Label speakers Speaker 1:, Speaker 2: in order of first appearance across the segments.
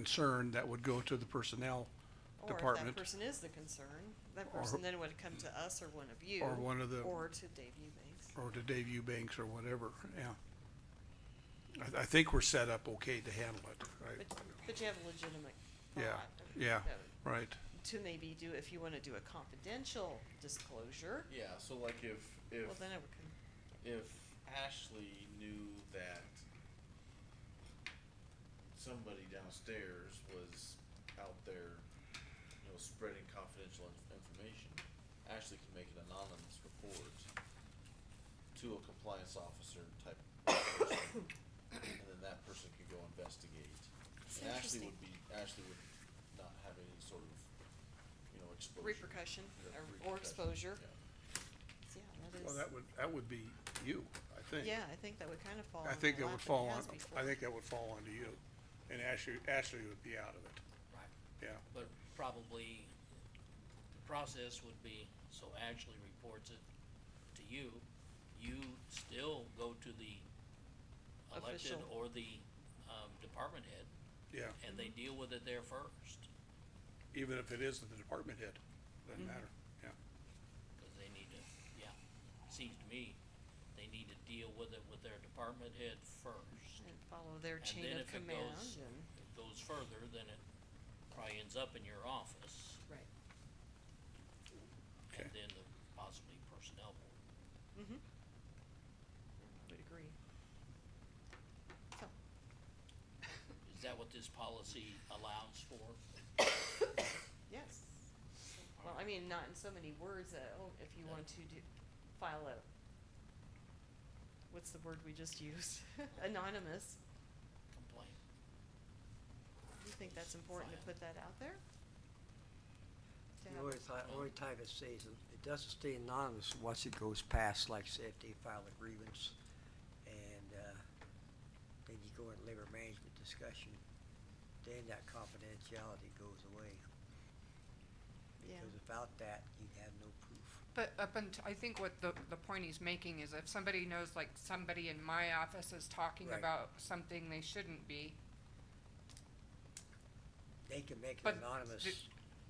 Speaker 1: concern that would go to the personnel
Speaker 2: Or if
Speaker 1: department.
Speaker 2: that person is the concern, that
Speaker 1: Or-
Speaker 2: person then would come to us or one of you.
Speaker 1: Or one of the-
Speaker 2: Or to Dave Eubanks.
Speaker 1: or to Dave Eubanks or whatever, yeah. I, I think we're set up okay to handle it,
Speaker 2: But, but you have a legitimate
Speaker 1: Yeah,
Speaker 2: thought.
Speaker 1: yeah.
Speaker 2: that-
Speaker 1: right, right,
Speaker 2: To maybe do, if you wanna do a confidential disclosure,
Speaker 3: Yeah, so like if if
Speaker 2: well, then it would come.
Speaker 3: if Ashley knew that somebody downstairs was out there, you know, spreading confidential inf- information, Ashley can make an anonymous report to a compliance officer type person, and then that person could go investigate.
Speaker 2: That's
Speaker 3: And Ashley
Speaker 2: interesting.
Speaker 3: would be, Ashley would not have any sort of, you know, exposure.
Speaker 2: Repercussion or,
Speaker 3: Yeah,
Speaker 2: or
Speaker 3: repercussion,
Speaker 2: exposure.
Speaker 3: yeah.
Speaker 2: Yeah, that
Speaker 1: well,
Speaker 2: is-
Speaker 1: that would, that would be you, I think.
Speaker 2: Yeah, I think that would kinda fall on
Speaker 1: I
Speaker 2: my
Speaker 1: think that
Speaker 2: lap
Speaker 1: would
Speaker 2: and it
Speaker 1: fall on,
Speaker 2: has before.
Speaker 1: I think that would fall onto you, and Ashley, Ashley would be out of it,
Speaker 4: Right,
Speaker 1: yeah,
Speaker 4: but probably the process would be, so Ashley reports it to you, you still go to the elected
Speaker 2: Official.
Speaker 4: or the, um, department head,
Speaker 1: yeah,
Speaker 4: and they deal with it there first,
Speaker 1: even if it is the department head,
Speaker 2: Mm-hmm.
Speaker 1: doesn't matter, yeah.
Speaker 4: cause they need to, yeah, seems to me, they need to deal with it with their department head first.
Speaker 2: And follow their
Speaker 4: And
Speaker 2: chain
Speaker 4: then
Speaker 2: of
Speaker 4: if it
Speaker 2: command
Speaker 4: goes-
Speaker 2: and,
Speaker 4: If it goes further, then it probably ends up in your office,
Speaker 2: right.
Speaker 4: and
Speaker 1: Okay.
Speaker 4: then the possibly personnel board.
Speaker 2: Mm-hmm. I would agree. So,
Speaker 4: Is that what this policy allows for?
Speaker 2: yes. Well, I mean, not in so many words that, oh, if you want to do, file a, what's the word we just used? Anonymous.
Speaker 4: Complaint.
Speaker 2: You think that's important to
Speaker 4: File.
Speaker 2: put that out there? To
Speaker 5: The
Speaker 2: have-
Speaker 5: only time, only time it stays, an- it doesn't stay anonymous once it goes past, like say if they file a grievance and, uh, then you go in labor management discussion, then that confidentiality goes away.
Speaker 2: Yeah.
Speaker 5: Because without that, you'd have no proof.
Speaker 6: But up until, I think what the, the point he's making is if somebody knows, like, somebody in my office is talking
Speaker 5: Right.
Speaker 6: about something they shouldn't be,
Speaker 5: They can make
Speaker 6: But
Speaker 5: an anonymous,
Speaker 6: the-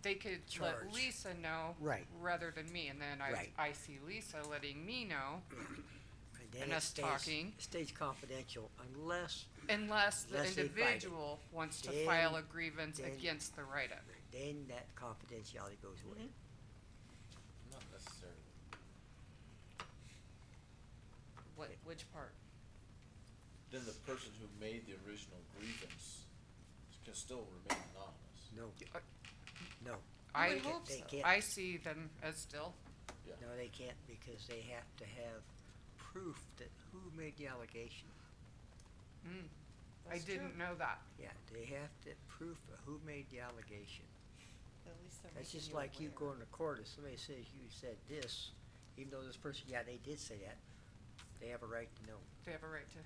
Speaker 6: they could
Speaker 5: Charge.
Speaker 6: let Lisa know.
Speaker 5: Right.
Speaker 6: Rather than me, and then I,
Speaker 5: Right.
Speaker 6: I see Lisa letting me know,
Speaker 5: and then
Speaker 6: and
Speaker 5: it
Speaker 6: us
Speaker 5: stays,
Speaker 6: talking.
Speaker 5: it stays confidential unless
Speaker 6: unless the
Speaker 5: Unless they fight it.
Speaker 6: individual wants to file a
Speaker 5: Then-
Speaker 6: grievance
Speaker 5: then-
Speaker 6: against the write-up.
Speaker 5: then that confidentiality goes away.
Speaker 3: Not necessarily.
Speaker 2: What, which part?
Speaker 3: then the person who made the original grievance can still remain anonymous.
Speaker 5: No,
Speaker 6: Uh,
Speaker 5: no,
Speaker 2: I
Speaker 6: I,
Speaker 2: would hope
Speaker 5: they
Speaker 2: so.
Speaker 5: can't.
Speaker 6: I see them as still,
Speaker 5: No, they can't because they have to have proof that who made the allegation.
Speaker 6: mm, I
Speaker 2: That's true.
Speaker 6: didn't know that.
Speaker 5: Yeah, they have to proof of who made the allegation.
Speaker 2: At least they're
Speaker 5: That's
Speaker 2: making
Speaker 5: just like you
Speaker 2: aware.
Speaker 5: going to court, if somebody says you said this, even though this person, yeah, they did say that, they have a right to know.
Speaker 6: They have a right to,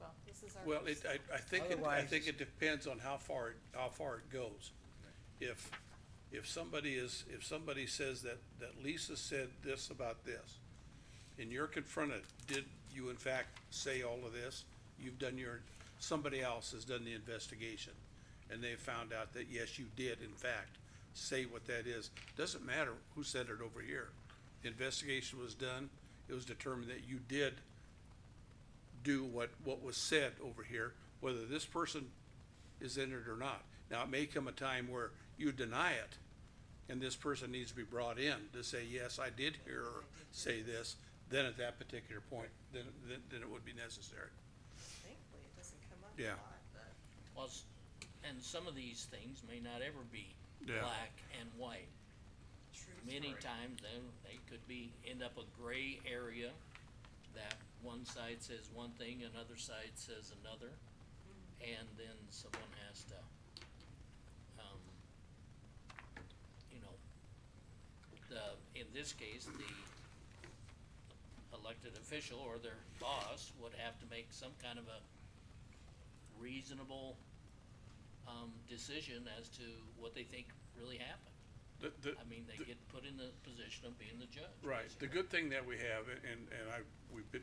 Speaker 2: Well, this is our.
Speaker 1: Well, it,
Speaker 2: first-
Speaker 1: I, I think, it- I
Speaker 5: Otherwise-
Speaker 1: think it depends on how far, it how far it goes. If, if somebody is, if somebody says that, that Lisa said this about this, and you're confronted, did you in fact say all of this? You've done your, somebody else has done the investigation, and they found out that, yes, you did in fact say what that is. Doesn't matter who said it over here. The Investigation was done, it was determined that you did do what, what was said over here, whether this person is in it or not. Now, it may come a time where you deny it, and this person needs to be brought in to say, yes, I did hear or say this, then at that particular point, then, then, then it would be necessary.
Speaker 2: Thankfully, it doesn't come up a
Speaker 1: Yeah.
Speaker 2: lot, but.
Speaker 4: Plus, and some of these things may not ever be
Speaker 1: Yeah.
Speaker 4: black and white.
Speaker 2: True
Speaker 4: Many times, then, they could be, end up a gray area that one side says one thing, another side says another, and then someone has to, um, you know, the, in this case, the elected official or their boss would have to make some kind of a reasonable, um, decision as to what they think really happened.
Speaker 1: The, the,
Speaker 4: I mean, they get put in the position of being the judge.
Speaker 1: right, the
Speaker 4: basically.
Speaker 1: good thing that we have, and, and I, we've been,